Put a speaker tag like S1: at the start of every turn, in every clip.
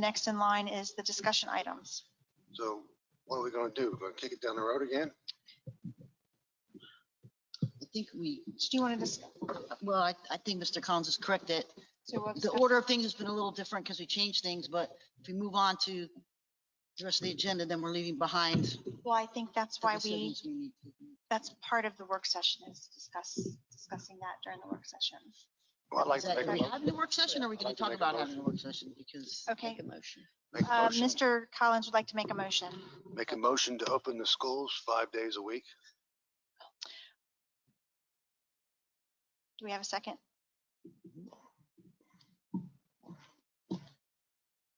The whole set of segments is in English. S1: Next in line is the discussion items.
S2: So what are we gonna do? Gonna kick it down the road again?
S3: I think we,
S1: Do you want to discuss?
S3: well, I, I think Mr. Collins is correct that
S1: so we'll
S3: the
S1: discuss-
S3: order of things has been a little different because we changed things, but if we move on to the rest of the agenda, then we're leaving behind. the
S1: Well, I think that's why we,
S3: decisions we need to make.
S1: that's part of the work session is discuss, discussing that during the work session.
S2: Well, I'd like
S3: Is
S2: to
S3: that,
S2: make a
S3: are we
S2: mo-
S3: having a work session or are we
S2: I'd
S3: going
S2: like to
S3: to talk
S2: make a
S3: about
S2: motion.
S3: having a work session? Because.
S1: Okay.
S4: Make a motion.
S2: make a
S1: Uh,
S2: motion,
S1: Mr. Collins would like to make a motion.
S2: make a motion to open the schools five days a week.
S1: Do we have a second?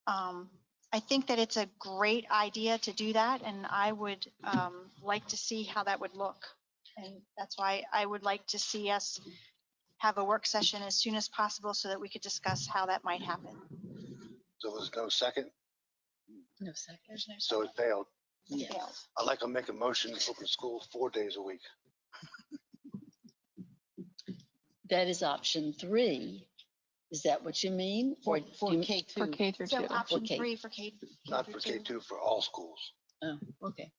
S1: Um, I think that it's a great idea to do that, and I would um, like to see how that would look. And that's why I would like to see us have a work session as soon as possible so that we could discuss how that might happen.
S2: So there's no second,
S4: No second.
S1: There's no
S2: so it failed.
S3: Yeah.
S1: fail.
S2: I'd like to make a motion to open school four days a week.
S4: That is option three. Is that what you mean? Or
S3: For,
S4: do
S3: for
S4: you mean-
S3: K
S5: For
S3: two.
S5: K through
S1: So
S5: two.
S1: option
S4: K.
S1: three for K. K
S2: Not
S1: through
S2: for K two, for all schools.
S4: Oh, okay.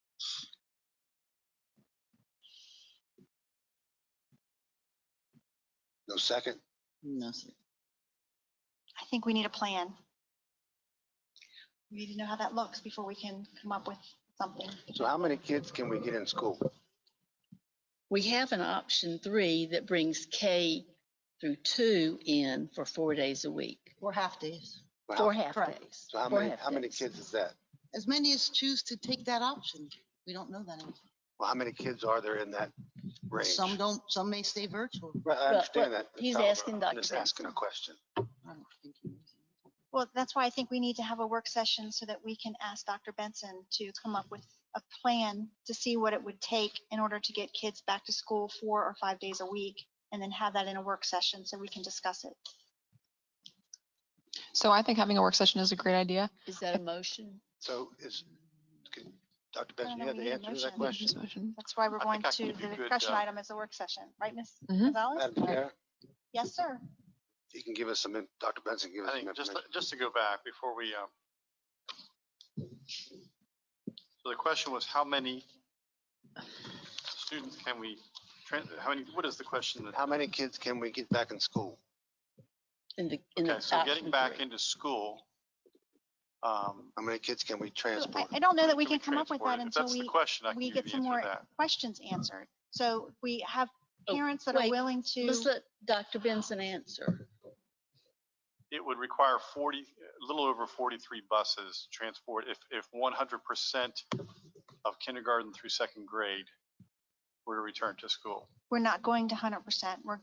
S2: No second,
S3: No, sir.
S1: I think we need a plan. We need to know how that looks before we can come up with something.
S2: so how many kids can we get in school?
S4: We have an option three that brings K through two in for four days a week,
S3: Four half days.
S2: Wow.
S4: four half
S3: Correct.
S4: days.
S2: So how
S4: four
S2: many,
S4: half
S2: how many
S4: days.
S2: kids is that?
S3: As many as choose to take that option. We don't know that. anymore.
S2: Well, how many kids are there in that range?
S3: Some don't, some may stay virtual.
S2: Right, I
S4: Well,
S2: understand
S4: well,
S2: that.
S4: he's
S2: However,
S4: asking
S2: I'm Just
S4: Dr.
S2: asking a question.
S3: I don't think you-
S1: Well, that's why I think we need to have a work session so that we can ask Dr. Benson to come up with a plan to see what it would take in order to get kids back to school four or five days a week, and then have that in a work session so we can discuss it.
S5: So I think having a work session is a great idea.
S4: Is that a motion?
S2: So is, can- Dr.
S1: No,
S2: Benson,
S1: no,
S2: you
S1: we
S2: have the
S1: need a
S2: answer to that
S1: motion.
S2: question?
S5: Just motion.
S1: That's why we're
S6: I
S1: going
S6: think I
S1: to
S6: can
S1: the
S6: give you a good,
S1: discussion
S6: uh,
S1: item as a work session, right, Ms.
S4: Mm-hmm.
S5: Mhm.
S1: Gonzalez?
S2: Madam Chair,
S1: Yes, sir.
S2: he can give us some, in- Dr. Benson, give us
S6: I
S2: some
S6: think, just,
S2: information.
S6: just to go back before we, um, so the question was how many students can we, tran- how many, what is the question? that-
S2: How many kids can we get back in school?
S4: In the, in the
S6: Okay, so getting
S4: option
S6: back
S4: three.
S6: into school, um,
S2: How many kids can we
S1: So
S2: transport?
S1: I, I don't know that we
S6: can we
S1: can come up with
S6: transport
S1: that
S6: it? If
S1: until
S6: That's
S1: we
S6: the question. I can
S1: we
S6: give you
S1: get
S6: the
S1: some
S6: answer to
S1: more
S6: that.
S1: questions answered. So we have
S4: Oh,
S1: parents that are
S4: wait.
S1: willing to,
S4: Let's let Dr. Benson answer.
S6: It would require 40, a little over 43 buses to transport if, if 100% of kindergarten through second grade were to return to school.
S1: we're not going to hundred percent. We're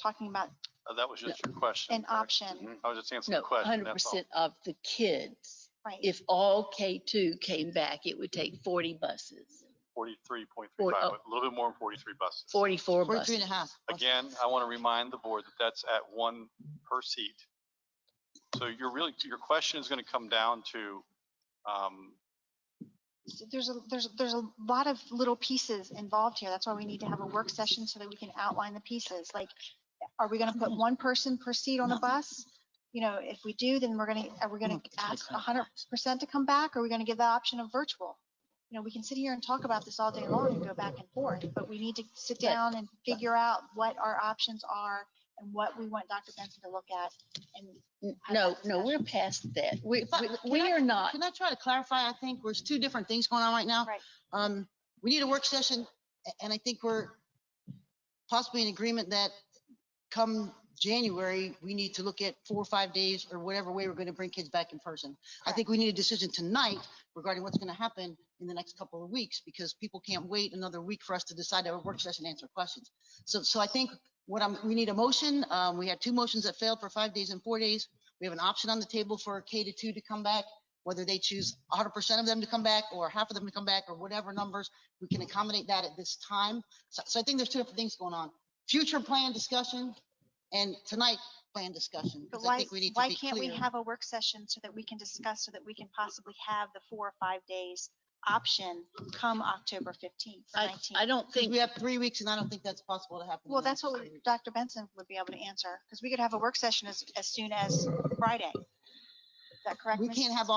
S1: talking about
S6: Uh, That was just your question.
S1: an
S6: correct?
S1: option,
S6: I was just answering
S4: No,
S6: the question.
S4: hundred
S6: that's all.
S4: percent of the kids.
S1: right?
S4: If all K two came back, it would take forty buses,
S6: Forty-three point three
S4: Forty-
S6: five,
S4: oh.
S6: a little bit more than forty-three buses.
S4: forty-four
S3: Forty-three
S4: buses.
S3: and a half.
S6: Again, I want to remind the board that that's at one per seat. So you're really, your question is going to come down to, um,
S1: There's a, there's, there's a lot of little pieces involved here. That's why we need to have a work session so that we can outline the pieces. Like, are we gonna put one person per seat on the bus? You know, if we do, then we're gonna, are we gonna ask hundred percent to come back? Or are we gonna give the option of virtual? You know, we can sit here and talk about this all day long and go back and forth, but we need to sit
S4: But-
S1: down and figure out what our options are and what we want Dr. Benson to look at. And
S4: N-
S1: have
S4: No,
S1: that
S4: no, we're past that. We,
S3: If I-
S4: we-
S3: can
S4: we
S3: I-
S4: are not,
S3: Can I try to clarify? I think there's two different things going on right now.
S1: Right.
S3: Um, we need a work session a- and I think we're possibly in agreement that come January, we need to look at four or five days or whatever way we're going to bring kids back in person. I think we need a decision tonight regarding what's going to happen in the next couple of weeks because people can't wait another week for us to decide our work session, and answer questions. So, so I think what I'm, we need a motion. Um, we had two motions that failed for five days and four days. We have an option on the table for K to two to come back, whether they choose hundred percent of them to come back or half of them to come back or whatever numbers. We can accommodate that at this time. So, so I think there's two different things going on. Future plan discussion and tonight plan discussion.
S1: But
S3: 'cause I
S1: why,
S3: think we need to
S1: why
S3: be
S1: can't we
S3: clear.
S1: have a work session so that we can discuss, so that we can possibly have the four or five days option come October 15th,
S4: I, I
S1: 19th?
S4: don't
S3: Because
S4: think,
S3: we have three weeks and I don't think that's possible to happen. in
S1: Well,
S3: the
S1: that's
S3: next
S1: what
S3: three weeks.
S1: Dr. Benson would be able to answer, because we could have a work session as, as soon as Friday.
S7: that correct?
S1: We
S7: Ms.
S1: can't have